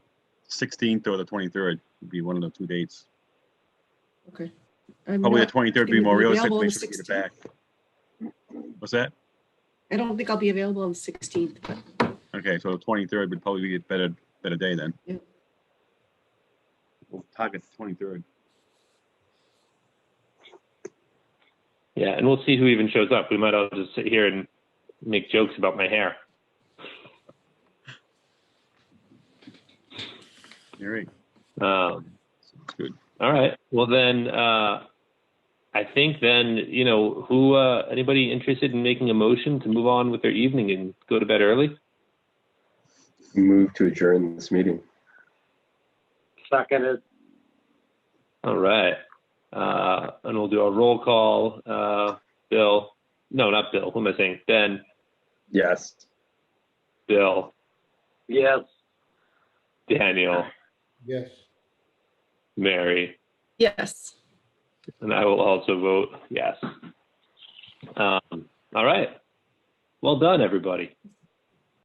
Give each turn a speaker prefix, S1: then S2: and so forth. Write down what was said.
S1: 16th or the 23rd would be one of the two dates.
S2: Okay. I'm
S1: Probably the
S2: not,
S1: 23rd would be
S2: gonna be
S1: more realistic.
S2: available on
S1: we
S2: the
S1: should get it
S2: 16th.
S1: back. What's that?
S2: I don't think I'll be available on the sixteenth, but
S1: Okay, so the 23rd would probably be a better, better day then.
S2: Yeah.
S1: We'll target the 23rd.
S3: Yeah, and we'll see who even shows up. We might all just sit here and make jokes about my hair.
S1: All right,
S3: Um,
S1: sounds good.
S3: all right. Well, then uh, I think then you know who uh, anybody interested in making a motion to move on with their evening and go to bed early.
S4: Move to adjourn this meeting.
S5: Seconded.
S3: All right. Uh, and we'll do a roll call. Uh, Bill, no, not Bill. Who am I saying? Ben,
S4: Yes.
S3: Bill,
S5: Yes.
S3: Daniel,
S6: Yes.
S3: Mary.
S2: yes.
S3: And I will also vote yes. Um, all right. Well done, everybody.